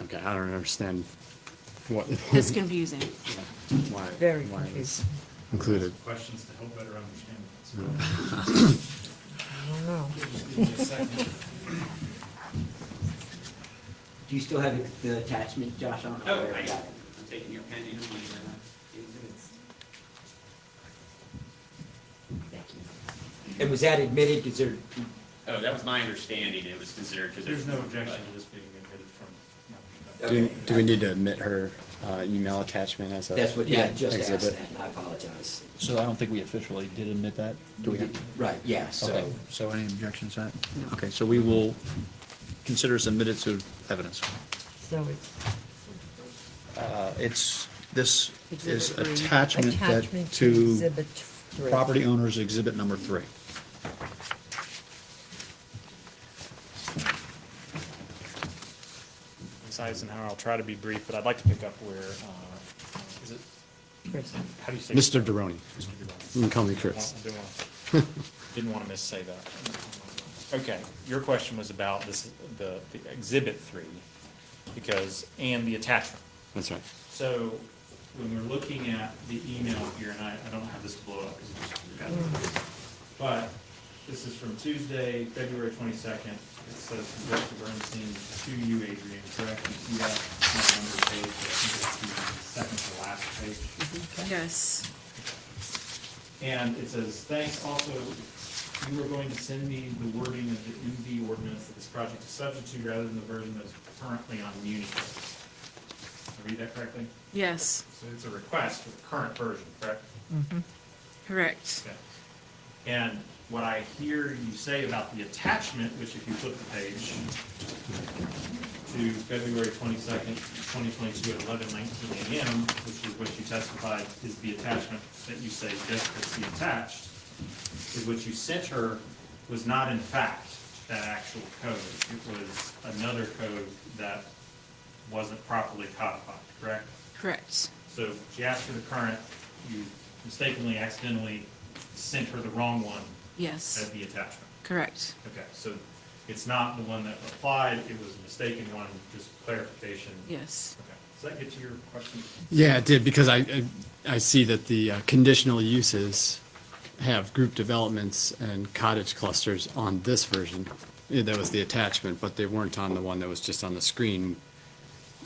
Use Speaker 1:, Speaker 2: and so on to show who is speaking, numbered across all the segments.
Speaker 1: Okay, I don't understand what,
Speaker 2: It's confusing.
Speaker 1: why.
Speaker 3: Very
Speaker 1: why it's
Speaker 3: confusing.
Speaker 1: Included.
Speaker 4: Questions to help better understand.
Speaker 3: I don't know.
Speaker 5: Do you still have the attachment, Josh, on?
Speaker 6: No, I, am taking your pen, you don't need to.
Speaker 5: And was that admitted, is there,
Speaker 6: Oh, that was my understanding, it was considered, because
Speaker 4: There's no objection to this being admitted from. my perspective.
Speaker 1: Do, do we need to admit her uh, email attachment as a?
Speaker 5: that's what, yeah, I just asked
Speaker 1: exhibit?
Speaker 5: that, and I apologize.
Speaker 7: So I don't think we officially did admit that. Do we?
Speaker 5: Right, yeah, so,
Speaker 7: Okay, so any objections to that? Okay, so we will consider submitted to evidence.
Speaker 3: So it's
Speaker 7: Uh, It's, this is
Speaker 2: Exhibit three.
Speaker 7: attachment that
Speaker 3: attachment to
Speaker 7: to
Speaker 3: exhibit three.
Speaker 7: property owners exhibit number three.
Speaker 4: Ms. Eisenhower, I'll try to be brief, but I'd like to pick up where, uh, is it,
Speaker 3: Chris.
Speaker 4: how do you say?
Speaker 1: Mr. Deroni.
Speaker 4: Mr.
Speaker 1: You
Speaker 4: Durant.
Speaker 1: can call me Mm, Chris.
Speaker 4: I didn't wanna- Didn't want to missay that. Okay, your question was about this, the the exhibit three, because, and the attachment.
Speaker 1: That's right.
Speaker 4: So when we're looking at the email here, and I, I don't have this to blow up 'cause it's got it. But this is from Tuesday, February twenty-second. It says from Director Bernstein to you, Adrian, correct? You see that on the number page, I think it's the second to last page.
Speaker 2: Yes.
Speaker 4: And it says, thanks also, you were going to send me the wording of the MV ordinance that this project is subject to rather than the version that's currently on Muni. Did I read that correctly?
Speaker 2: Yes.
Speaker 4: So it's a request for the current version, correct?
Speaker 2: Correct.
Speaker 4: Okay. And what I hear you say about the attachment, which if you flip the page to February twenty-second, twenty twenty-two at eleven nineteen AM, which is what you testified is the attachment that you say just to be attached, is what you sent her was not in fact that actual code. It was another code that wasn't properly codified, correct?
Speaker 2: Correct.
Speaker 4: So she asked for the current, you mistakenly, accidentally sent her the wrong one as
Speaker 2: Yes.
Speaker 4: the attachment.
Speaker 2: Correct.
Speaker 4: Okay, so it's not the one that applied, it was a mistaken one, just clarification.
Speaker 2: Yes.
Speaker 4: Okay, does that get to your question?
Speaker 1: Yeah, it did, because I, I- I see that the uh, conditional uses have group developments and cottage clusters on this version. Yeah, That was the attachment, but they weren't on the one that was just on the screen.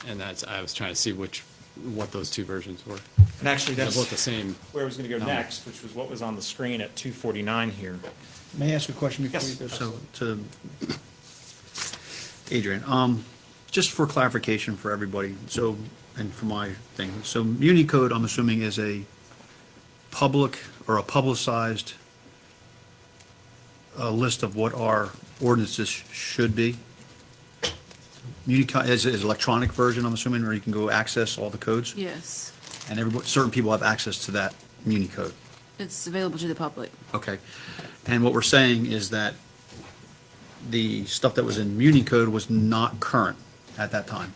Speaker 1: And that's, I was trying to see which, what those two versions were.
Speaker 4: And actually,
Speaker 1: They're both the same.
Speaker 4: where I was gonna go
Speaker 1: No.
Speaker 4: next, which was what was on the screen at two forty-nine here.
Speaker 7: May I ask a question before
Speaker 4: Yes,
Speaker 7: you go? So, to Adrian, um, just for clarification for everybody, so, and for my thing, so Muni Code, I'm assuming, is a public or a publicized uh, list of what our ordinances should be? Muni Co- is, is electronic version, I'm assuming, where you can go access all the codes?
Speaker 2: Yes.
Speaker 7: And everybody, certain people have access to that Muni Code?
Speaker 2: It's available to the public.
Speaker 7: Okay. And what we're saying is that the stuff that was in Muni code was not current at that time.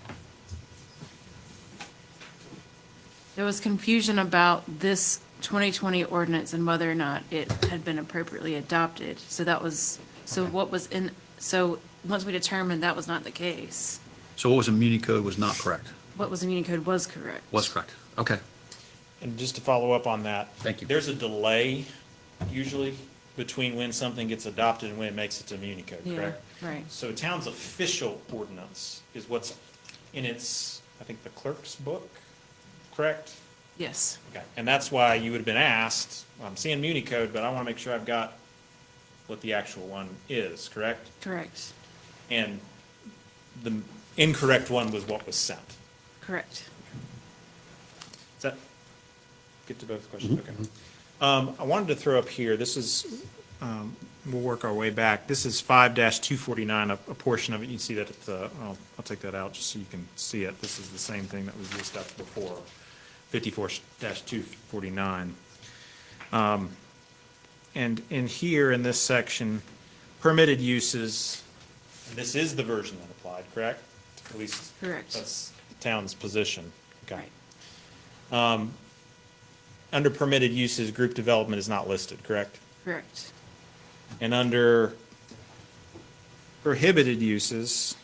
Speaker 2: There was confusion about this 2020 ordinance and whether or not it had been appropriately adopted. So that was, so what was in, so once we determined that was not the case,
Speaker 7: So what was in Muni code was not correct?
Speaker 2: what was in Unicode was correct.
Speaker 7: Was correct. Okay.
Speaker 4: And just to follow up on that.
Speaker 7: Thank you.
Speaker 4: There's a delay usually between when something gets adopted and when it makes it to Muni Code,
Speaker 2: Yeah,
Speaker 4: correct?
Speaker 2: right.
Speaker 4: So town's official ordinance is what's in its, I think, the clerk's book, correct?
Speaker 2: Yes.
Speaker 4: Okay, and that's why you would have been asked, I'm seeing Muni Code, but I want to make sure I've got what the actual one is, correct?
Speaker 2: Correct.
Speaker 4: And the incorrect one was what was sent.
Speaker 2: Correct.
Speaker 4: Does that get to both questions? Okay. Um, I wanted to throw up here, this is, um, we'll work our way back. This is five two forty-nine, a, a portion of it. You can see that at the, I'll, I'll take that out just so you can see it. This is the same thing that was just up before, fifty-four two forty-nine. Um, And in here, in this section, permitted uses, and this is the version that applied, correct? At least.
Speaker 2: Correct.
Speaker 4: That's the town's position. Okay.
Speaker 2: Right.
Speaker 4: Under permitted uses, group development is not listed, correct?
Speaker 2: Correct.
Speaker 4: And under prohibited uses,